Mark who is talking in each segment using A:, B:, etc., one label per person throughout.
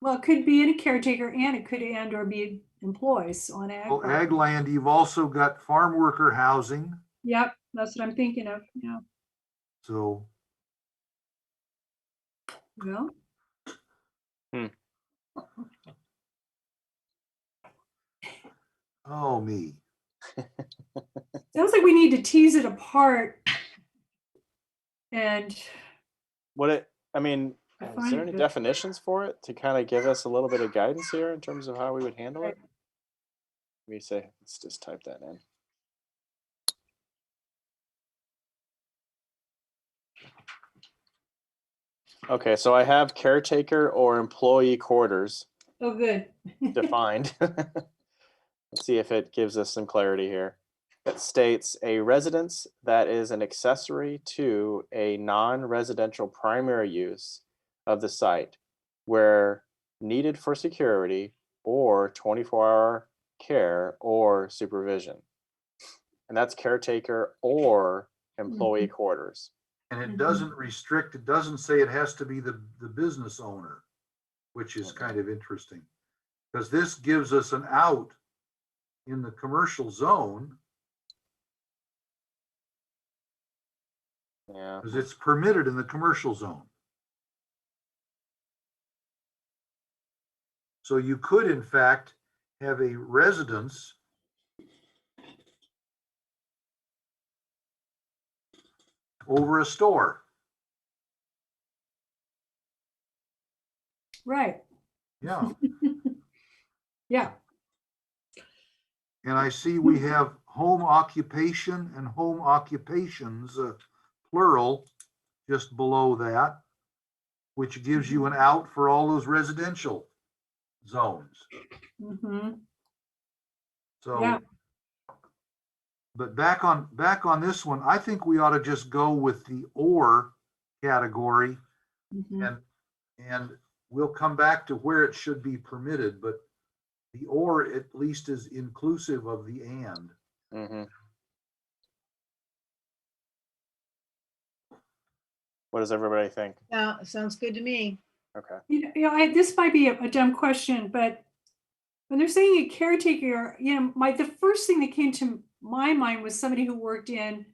A: Well, it could be in a caretaker and it could and or be employees on ag.
B: Well,
A: property.
B: ag land, you've also got farm worker housing,
A: Yep, that's what I'm thinking of, yeah,
B: so
A: well.
B: oh me.
A: Sounds like we need to tease it apart. And
C: What it, I mean,
A: I
C: is
A: find
C: there any
A: that-
C: definitions for it to kind of give us a little bit of guidance here in terms of how we would handle it? We say, let's just type that in. Okay, so I have caretaker or employee quarters
A: oh, good.
C: defined. Let's see if it gives us some clarity here. It states a residence that is an accessory to a non-residential primary use of the site where needed for security or 24-hour care or supervision. And that's caretaker or employee quarters.
B: And
A: Mhm.
B: it doesn't restrict, it doesn't say it has to be the, the business owner, which is kind of interesting. Because this gives us an out in the commercial zone,
C: Yeah.
B: because it's permitted in the commercial zone. So you could in fact have a residence over a store.
A: Right,
B: Yeah,
A: yeah,
B: and I see we have home occupation and home occupations, uh, plural, just below that, which gives you an out for all those residential zones.
A: hmm Yeah.
B: So. But back on, back on this one, I think we ought to just go with the or category
A: hmm
B: and, and we'll come back to where it should be permitted, but the or at least is inclusive of the and.
C: mhm. What does everybody think?
D: Yeah, sounds good to me.
C: Okay.
A: You know, you know, I, this might be a a dumb question, but when they're saying a caretaker, you know, my, the first thing that came to my mind was somebody who worked in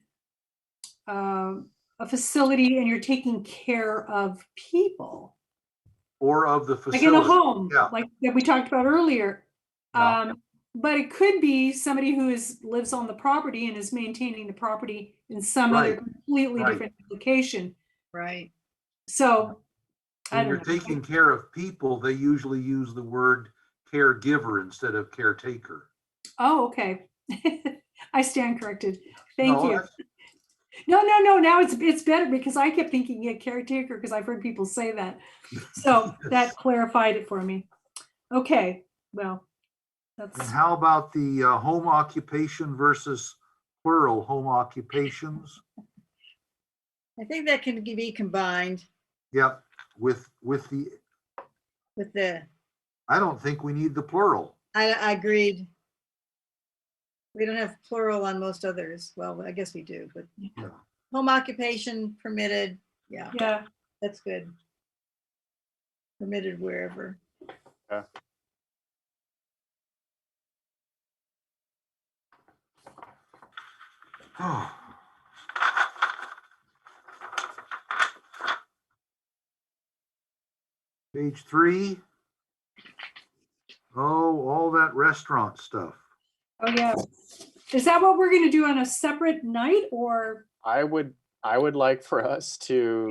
A: um, a facility and you're taking care of people,
B: Or of the
A: like in a
B: facility.
A: home,
B: yeah.
A: like that we talked about earlier.
C: Yeah.
A: Um, but it could be somebody who is, lives on the property and is maintaining the property in some other
B: Right,
A: completely
B: right.
A: different location.
D: Right.
A: So, I
B: When
A: don't
B: you're
A: know.
B: taking care of people, they usually use the word caregiver instead of caretaker.
A: Oh, okay. I stand corrected. Thank
B: No,
A: you.
B: that's-
A: No, no, no, now it's, it's better because I kept thinking, yeah, caretaker, because I've heard people say that. So that clarified it for me. Okay, well,
B: And
A: that's,
B: how about the uh, home occupation versus plural home occupations?
D: I think that can g- be combined
B: Yep, with, with the,
D: with the,
B: I don't think we need the plural.
D: I, I agreed. We don't have plural on most others. Well, I guess we do, but
B: Yeah.
D: home occupation permitted. Yeah,
A: yeah,
D: that's good. Permitted wherever.
B: Page three. Oh, all that restaurant stuff.
A: oh, yeah. Is that what we're gonna do on a separate night or?
C: I would, I would like for us to,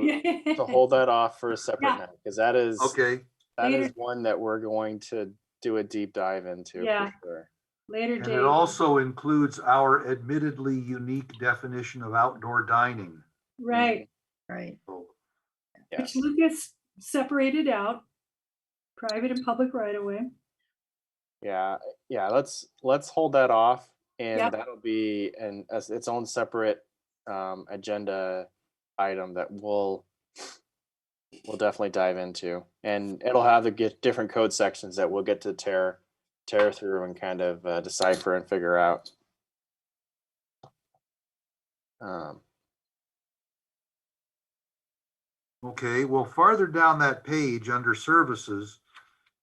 C: to
A: Yeah,
C: hold that off for a separate
A: Yeah.
C: night, because that is,
B: Okay,
C: that
A: later.
C: is one that we're going to do a deep dive into
A: Yeah.
C: for sure.
A: Later
B: and
A: date.
B: it also includes our admittedly unique definition of outdoor dining.
A: Right,
D: Right.
B: So
A: which
C: Mm-hmm. Yes.
A: Lucas separated out, private and public right away.
C: Yeah, eh, yeah, let's, let's hold that off
A: Yep.
C: and that'll be an, as its own separate um, agenda item that we'll, we'll definitely dive into. And it'll have the get, different code sections that we'll get to tear, tear through and kind of uh, decipher and figure out. Um,
B: Okay, well, farther down that page, under services,